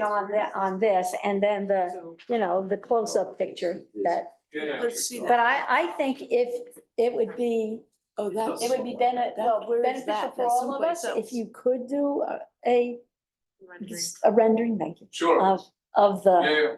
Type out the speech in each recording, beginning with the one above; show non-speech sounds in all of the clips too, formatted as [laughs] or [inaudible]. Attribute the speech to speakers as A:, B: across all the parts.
A: on that, on this, and then the, you know, the close-up picture that,
B: Let's see
A: but I, I think if, it would be,
B: Oh, that.
A: it would be bene- well, beneficial for all of us if you could do a- a, a rendering, thank you,
C: Sure,
A: of, of
C: yeah,
A: the,
C: yeah.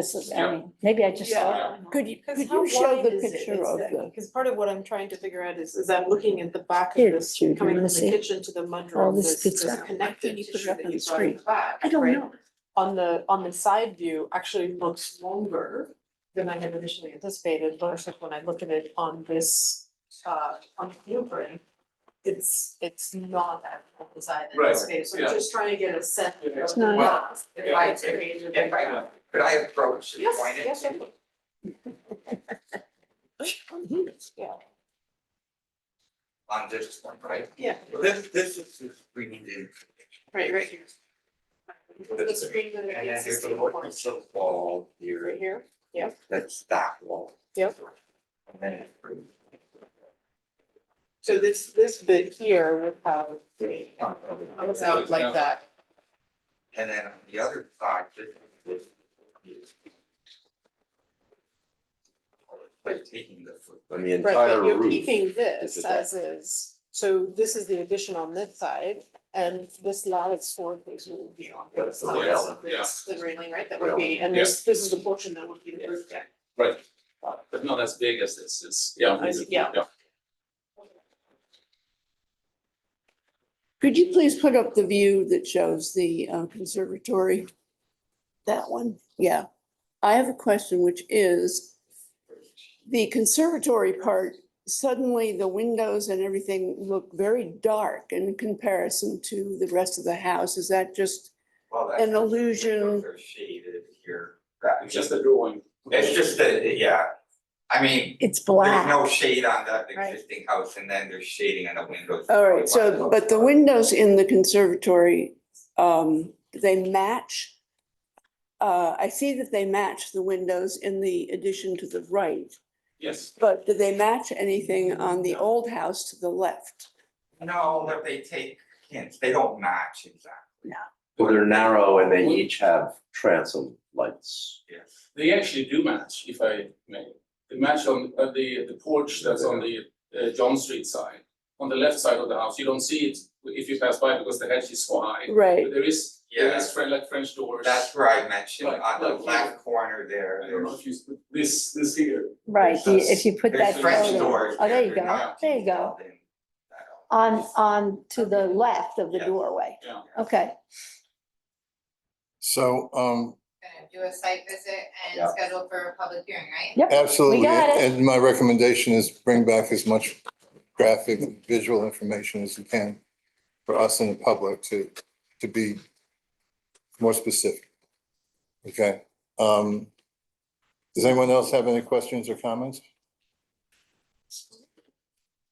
A: faci- I mean, maybe I just saw.
C: Yeah.
A: Could you,
B: Because how wide is it exactly? Because part of what I'm trying to figure out is, is I'm looking at the back of
A: Here,
B: this,
A: Judy,
B: coming from
A: let's
B: the
A: see.
B: kitchen to the
A: All
B: mudroom, this,
A: this good
B: this
A: stuff.
B: connected
D: you put it
B: tissue
D: up on
B: that
D: the
B: you saw in the back,
A: I don't
B: right?
A: know.
B: On the, on the side view actually looks longer than I had initially anticipated, but it's like when I look at it on this, uh, on the blueprint, it's, it's not that full design in
C: Right,
B: this space, so I'm
C: yeah.
B: just trying to get a sense of
C: Yeah. It's
B: the
D: not-
B: box, if I
C: Yeah.
B: created it.
E: If I could I approach and
B: Yes,
E: point it?
B: yes,
E: to-
B: [laughs] Yeah,
E: On this one, right?
B: yeah,
E: Well, This, this is the screen in,
B: right, right here. The
E: That's
B: screen that
E: and then
B: it's
E: there's a
B: sixteen
E: little piece of wall
B: Right
E: here,
B: here,
E: that's that wall.
B: Yep.
E: And then it's pretty.
B: so this, this bit here would have, it comes out like that.
E: And then on the other side, this is. this. By taking the foot.
F: And the
B: Right,
F: entire
B: but you're
F: roof,
B: keeping this
F: is
B: as is, so this is the addition on this side, and this lattice four piece will be on
E: Yeah,
B: the
E: it's the
B: side.
E: rail,
B: So this- The railing, right, that would
E: Rail,
B: be, and this, this is the portion that would be the roof deck.
C: Right, but not as big as this, it's, yeah.
B: I see, yeah.
D: Could you please put up the view that shows the uh, conservatory? That one, yeah. I have a question, which is the conservatory part, suddenly the windows and everything look very dark in comparison to the rest of the house. Is that just,
E: Well,
D: An illusion.
E: They're shaded here.
C: It's just a drawing.
E: It's just that, yeah, I mean,
A: It's
E: There's
A: black,
E: no shade on that
A: Right.
E: existing house and then there's shading on the windows.
D: all right, so, but the windows in the conservatory, um, they match. Uh, I see that they match the windows in the addition to the right.
C: Yes,
D: But do they match anything on the old house to the left?
E: No, but they take hints, they don't match exactly,
F: well, they're narrow and they each have transom lights.
E: yes.
C: they actually do match, if I may. They match on, uh, the, the porch that's on the, uh, John Street side. On the left side of the house, you don't see it if you pass by because the hedge is so high.
D: Right.
C: But there is, there is
E: Yeah.
C: French, like French doors.
E: That's where I mentioned
C: Like-
E: on the
C: like
E: left corner there,
C: I don't know
E: there's,
C: if you, this, this here,
A: right, the- if you put
E: there's
A: that
E: French
C: photo-
A: photo
E: doors.
A: Oh, there you go,
E: they're not
A: there you go.
E: detailed in that all.
A: on, on to the left of the
E: Yeah.
A: doorway,
C: yeah.
A: okay.
G: So, um,
H: gonna do a site visit
E: Yeah.
H: and schedule for a public hearing, right?
G: absolutely,
A: got it.
G: and my recommendation is bring back as much graphic, and visual information as you can for us and the public to, to be more specific. Okay, um, does anyone else have any questions or comments?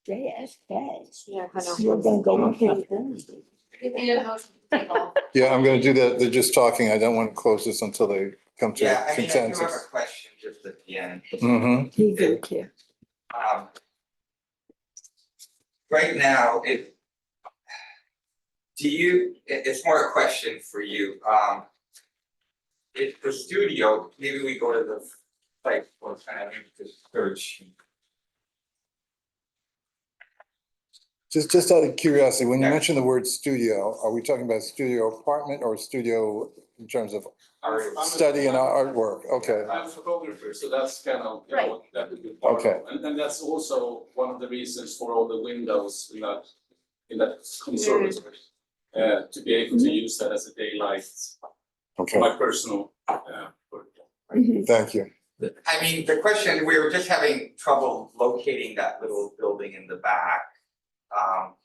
A: Yes, yes.
B: Yeah, kind of.
A: You're gonna go with me.
H: We need a motion to table.
G: Yeah, I'm gonna do that, they're just talking, I don't want to close this until they come
E: Yeah,
G: to
E: I mean, I do have a
G: consensus.
E: question just at the end,
G: Mm-hmm,
A: He didn't care.
E: um. Right now, it. Do you, it, it's more a question for you, um. If the studio, maybe we go to the site for kind of the search.
G: just, just out of curiosity, when you
E: Yeah.
G: mention the word studio, are we talking about studio apartment or studio in terms of
E: Or
C: I'm- I'm-
G: study and artwork, okay.
C: I'm a photographer, so that's kind of, you know, that would be part of.
G: Okay.
C: And and that's also one of the reasons for all the windows in that, in that conservatory. Uh, to be able to use that as a daylight,
G: Okay,
C: my personal, uh, work.
G: thank you.
E: I mean, the question, we were just having trouble locating that little building in the back. Um.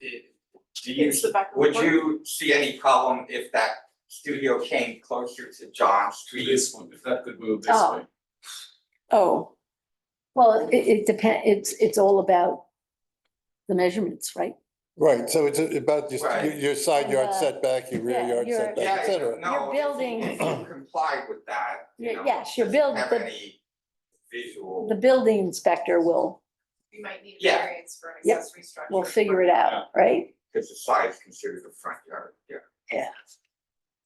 E: it- Do you,
B: It's the back of the
E: would
B: porch.
E: you see any problem if that studio came closer to John
C: to
E: Street?
C: this one, if that could move this
A: Oh.
C: way.
D: Oh,
A: Well, it, it depend, it's, it's all about the measurements, right?
G: Right, so it's about your, your-
E: Right.
G: your side
A: And,
G: yard
A: uh,
G: setback, your rear
A: yeah,
G: yard
A: your-
G: setback, et cetera.
E: Yeah,
A: Your
E: no,
A: building-
E: if you complied with that, you
A: Yeah,
E: know,
A: yes, your
E: doesn't
A: build-
E: Have
A: the-
E: any visual.
A: The building inspector will,
H: We might need a
E: Yeah.
H: variance for an
A: Yep.
H: accessory structure.
A: will figure it out, right?
E: Cause the size considered the front yard, yeah.
A: Yeah.